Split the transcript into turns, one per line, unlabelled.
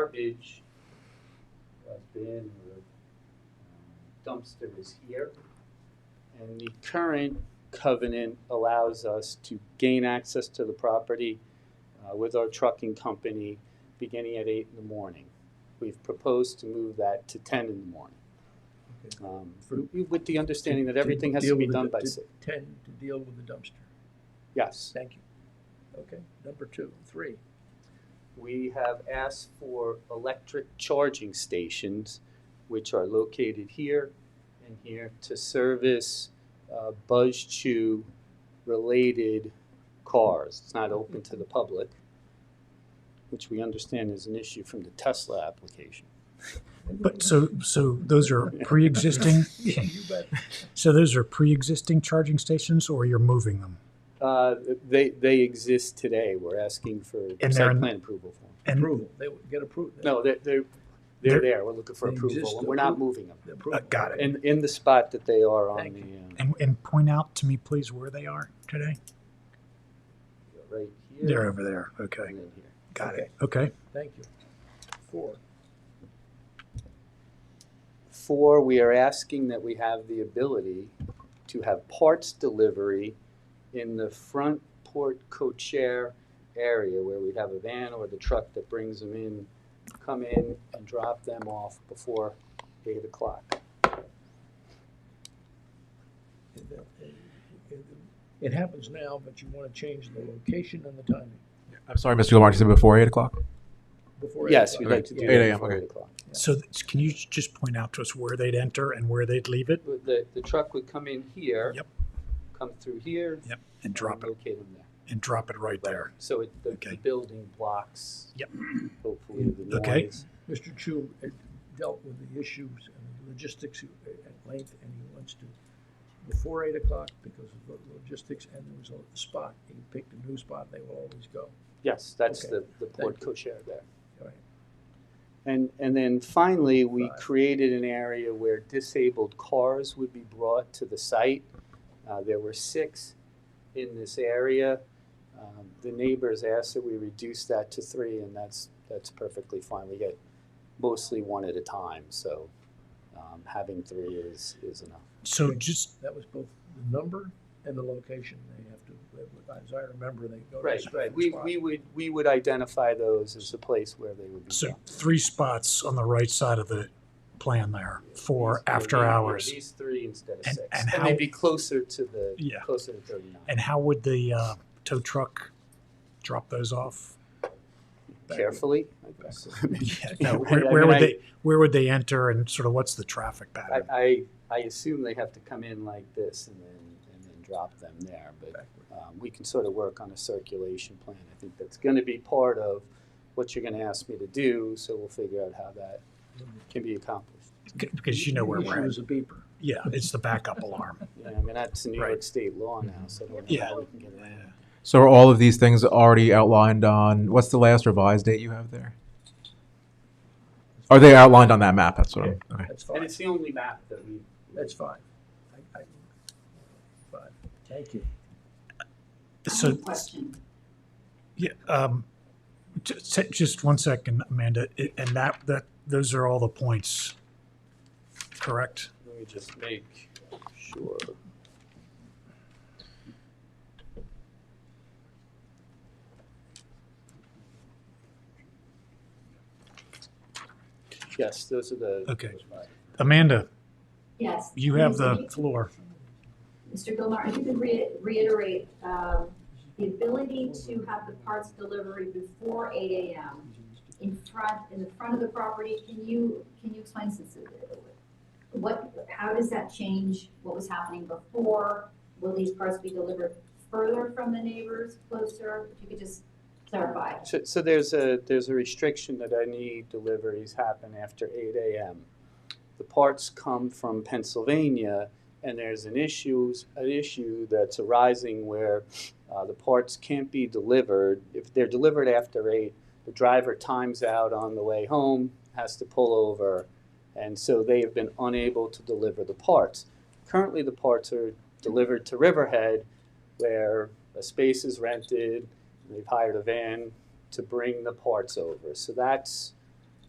garbage uh, bin or um, dumpster is here. And the current covenant allows us to gain access to the property uh, with our trucking company beginning at eight in the morning. We've proposed to move that to ten in the morning. Um, w- With the understanding that everything has to
deal
be
with
done
the-
by
to-
six.
Ten, to deal with the dumpster.
Yes.
Thank you. Okay, number two, three.
We have asked for electric charging stations, which are located here and here to service uh, Buzz Chew related cars. It's not open to the public, which we understand is an issue from the Tesla application.
But so, so those are pre-existing,
Yeah, you bet.
so those are pre-existing charging stations or you're moving them?
Uh, They, they exist today. We're asking for
they're
site
in-
plan approval for them.
And
Approval, they would get approved.
No, they're, they're, they're
They're-
there. We're looking for
They
approval
exist,
and we're not
appro-
moving them.
The approval.
Uh, got it.
In, in the spot that they are on
Thank
the. uh,
And, and point out to me, please, where they are today?
uh, right here.
They're over there. Okay.
and then here.
Got it. Okay.
Thank you. Four,
Four, we are asking that we have the ability to have parts delivery in the front port co-chair area where we'd have a van or the truck that brings them in, come in and drop them off before eight o'clock.
It- it- it- it happens now, but you want to change the location and the timing
I'm sorry, Mr. Lamar, you said before 8 o'clock?
before. eight
Yes, we'd
o'clock.
like to do
Okay. 8
that
a.m.,
before
okay.
eight o'clock.
So th- can you just point out to us where they'd enter and where they'd leave it
But The, the truck would come in here.
Yep.
Come through here.
Yep, and drop it,
Locate them there.
and drop it right there?
So it, the- the
Okay.
building blocks.
Yep.
Hopefully the
Okay.
noise.
Mr. Chu uh, dealt with the issues and logistics at length, and he wants to, before eight o'clock, because of the logistics, and there was a spot, he picked a new spot, they will always go.
Yes, that's
Okay.
the, the port
you.
co-chair there.
All right.
And, and then finally, we
Five.
created an area where disabled cars would be brought to the site. Uh, there were six in this area. Um, the neighbors asked that we reduce that to three, and that's, that's perfectly fine. We get mostly one at a time, so, um, having three is, is enough.
So just,
That was both the number and the location, they have to, as I remember, they go to a
Right,
specific
right. We,
spot.
we would, we would identify those as the place where they would be.
so
brought.
three spots on the right side of the plan there for
These- yeah,
after
these- yeah,
hours.
These three instead of
And-
six.
and
And they'd
how-
be closer to the,
Yeah.
closer to thirty-nine.
And how would the uh, tow truck drop those off?
carefully. I guess.
No,
No,
where,
I- I
where
mean,
would
I-
they where would they enter and sort of what's the traffic
I,
pattern?
I, I assume they have to come in like this and then, and then drop them there, but
Backward.
um, we can sort of work on a circulation plan. I think that's gonna be part of what you're gonna ask me to do, so we'll figure out how that can be accomplished.
C- because you know where
The issue
we're at.
is a beeper.
Yeah, it's the backup alarm.
You know, I mean, that's New York
Right.
State law now, so I don't know
Yeah.
how we can get around. it.
So are all of these things already outlined on, what's the last revised date you have there? Are they outlined on that map? That's what I'm, okay.
That's
And
fine,
it's the only map that we,
that's fine. I, I, fine, thank you.
I have
So
a question.
yeah, um, just, just one second, Amanda, I- and that that those are all the points, correct?
let me just make sure. Yes, those are the.
Okay. Amanda,
Yes.
you have
Mr.
the floor.
Mr. Gilmar, if you could rea- reiterate, um, the ability to have the parts delivery before eight AM in front, in the front of the property, can you, can you explain since it- what, how does that change what was happening before? Will these parts be delivered further from the neighbors, closer? If you could just clarify.
So, so there's a, there's a restriction that any deliveries happen after eight AM. The parts come from Pennsylvania, and there's an issues, an issue that's arising where, uh, the parts can't be delivered. If they're delivered after eight, the driver times out on the way home, has to pull over, and so they have been unable to deliver the parts. Currently, the parts are delivered to Riverhead, where a space is rented, They've hired a van to bring the parts over. So that's